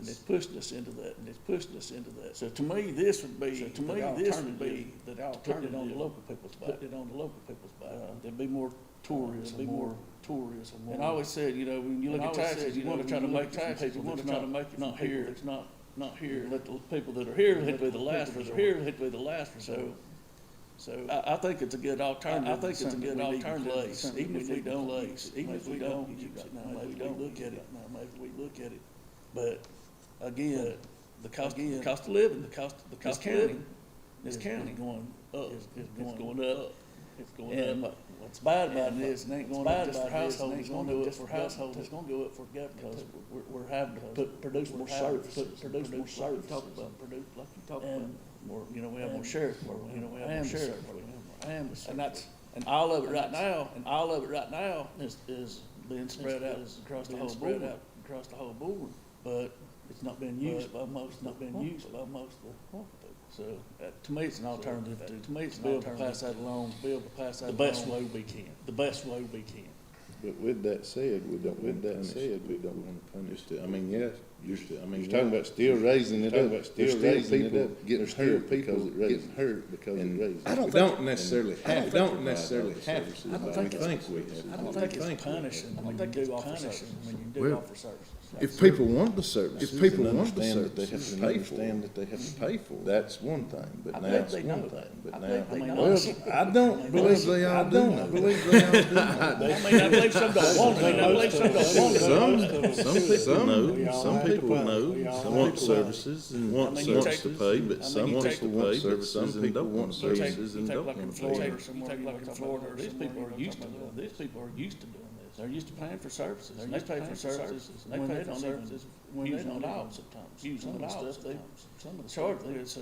And it's pushing us into that, and it's pushing us into that. So to me, this would be, So to me, this would be The putting it on the alternative, local people's back. putting it on the local people's back. Uh, There'd be more tourism, There'd be more tourism. And I more- always said, you know, when you look And I at always taxes, said, you you know, wanna when try to you look make at some taxes, you people wanna that's try to not- make it from not here, here. it's not, not here. here. Let the people that are here, let Let be the the last people that resort. are Here, here. let be the last So, resort. so. I, I think it's a good alternative. I think it's a Something good we need to alternative, place. Something even if we we need to don't, place. like, even if we don't use it, now, maybe we look at it, now, maybe we look at it. But again, the cost, the Again, cost of living, the cost, the This cost of county, living, this this county county going up, is, is it's going, going up. it's And going up. what's bad about And it it's is, it not ain't going going up up just for for households, households, it's gonna go up for households, it's gonna go up for government. Because We're, we're having to put, produce more we're having to services, put- produce more produce like you services. talked about, Produce, like you talked And more, you know, we have more And- sheriff work, you know, we have more and sheriff sheriff work. work. And that's, and all of it right now, and all of it right now Is, is being spread out is across the being whole spread board. out Across the whole board, but it's not being used by most, it's not being used by most of the, so, uh, to me, it's an alternative to, to me, it's an Be able to alternative. pass that along, be able to pass that the along. best way we can, the best way we can. But with that said, we don't, with that said, we don't wanna punish the, I mean, yes, you're, I mean, you're talking about still raising it up. There's still people getting hurt because it raises. Getting hurt because it raises. I don't We don't think, necessarily have, we don't necessarily have. to. I We don't think think we have. I to. don't We think it's we have. punishing, when you do offer services, when you do Well, offer services. If people want the service, If if people people want the understand that they service, have to pay for understand it. that they have to pay for, it. that's one thing, I but now think it's they know. one thing, I but think they now. know. Well, I don't believe they all do know. believe they all do I mean, I believe some don't want it, I believe some don't want it. Some, some people We know, all some have to people pay. We know, all some have want to pay. services and want, mean, you wants take- to pay, I but mean, some you wants take- to want pay, but services some and people don't want want You take- services you and take don't like in want to Florida pay. or somewhere, you like in Florida or these people are used to doing, these people are used to doing this. They're used to paying for services, and they pay for services, and When they pay they for don't services, even- using when it they don't all even sometimes, use using it it all all sometimes. sometimes. Some of the Charge charge there, so,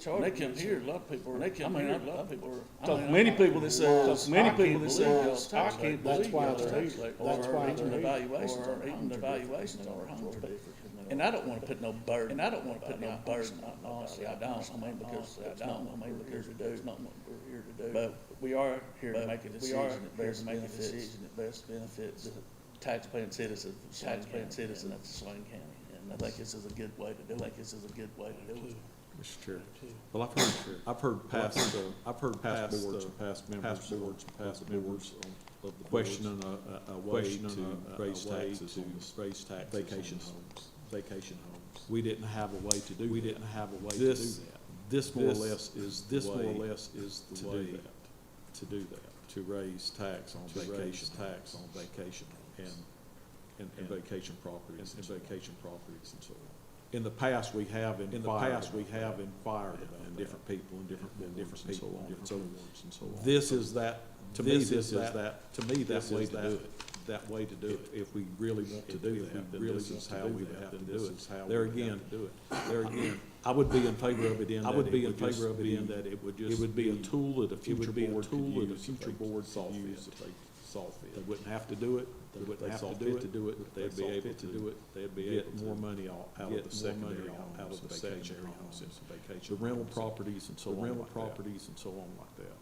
charge, they come here, a lot of people, they come here, a lot of people. are- Talk I to mean, many I- people that says, Talk to many "I can't people that believe says, y'all's I tax can't rate." That's believe why y'all's they're tax here. rate, That's or why even they're the here. valuations, Or or even the homes are different valuations than on our ours. homes We're are different. different than And I don't wanna put no burden. And I don't wanna put no burden, Honestly, I don't, I mean, because I don't, I mean, because we do, it's not what we're here to do. But we are here to But make a we are decision that here best to make a benefits, decision that best benefits the taxpaying citizens, taxpaying citizens of Swain County. And I think this is a good way to do it, I think this is a good way to do it. Mr. Chair. Well, I've heard, I've heard past, I've heard past boards, past members, past boards, past members of the questioning a, a, a way to raise taxes on the, raise taxes vacation homes, vacation homes. We didn't have a way to do We didn't have a way to do that. This more or less is the way. This more or less is the way. To do that. To do that. To raise tax on vacation. Tax on vacation homes. And, and vacation properties. And vacation properties and so on. In the past, we have inquired. In the past, we have inquired And different people and different, and different people and so on. This is that, to me, this is that, to me, that way to do it. That way to do it. If we really want to do that, then this is how we would have to do it. There again, there again, I would be in favor of it in that. I would be in favor of it in that it would just. It would be a tool that a future board could use. if they Solve it. They wouldn't have to do it. They wouldn't have to do it. They'd be able to do it. They'd be able to. Get more money out, out of the secondary homes, out of the secondary homes, vacation. The rental properties and so on Rental properties and so on like that.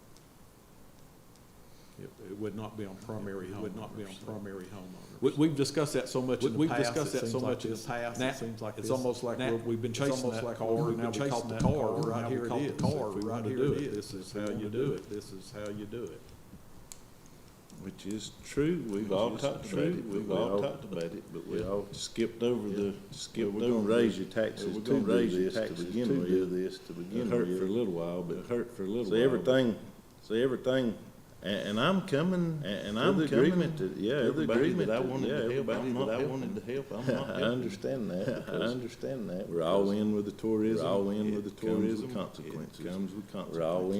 It, it would not be on primary homeowners. Would not be on primary homeowners. We, we've discussed that so much in the past. We've discussed that so much in the past. It seems like It's almost like we're- we've been chasing that car, now we caught the car, right here it is. Car, right here it is. This is how you do it. This is how you do it. Which is true, we've all talked about it, we've all talked about it, but we all skipped over the, skipped over. We're gonna raise your Well, taxes We're to gonna raise do your this to taxes to begin do with. this to It begin hurt for a with. little while, but It hurt for a little So while. everything, so everything, And, and I'm coming, and to I'm the coming. agreement that, yeah, to the everybody agreement that I yeah, wanted to help, everybody I'm not that I helping. wanted to help, I'm I not helping. understand I that, because understand that. we're all because in with the tourism. We're all in with the It comes tourism. Consequences. It comes with consequences. We're all in,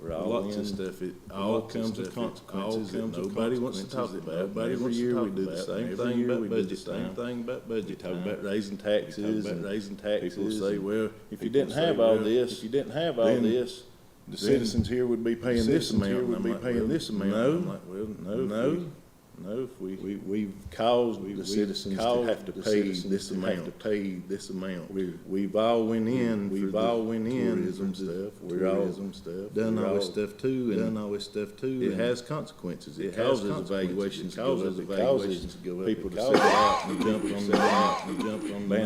we're all in. Lots of stuff, it all all comes kinds with of consequences consequences that that nobody wants to talk about. Every Every year we do the same thing about budget, time. same thing about budget Talk time. about raising taxes about and raising taxes. People say, and well, if you people didn't say, have all well, this. if you didn't have all then this, The then citizens here would be paying this citizens amount. here and would I'm be like, paying well, this amount. No. I'm like, well, no, no, no, no, if we, We, we've caused we- the we've citizens to caused have to the pay citizens this to have amount. to pay this amount. We've, we've all went in for We've the all went in for tourism stuff, stuff. we're all tourism stuff. done We're all this all- stuff too, Done and all this stuff too. it and has consequences. It It has causes consequences. evaluations to It go up. causes It causes evaluations to go up. People It to causes- sell out and jump on the, and jump on the.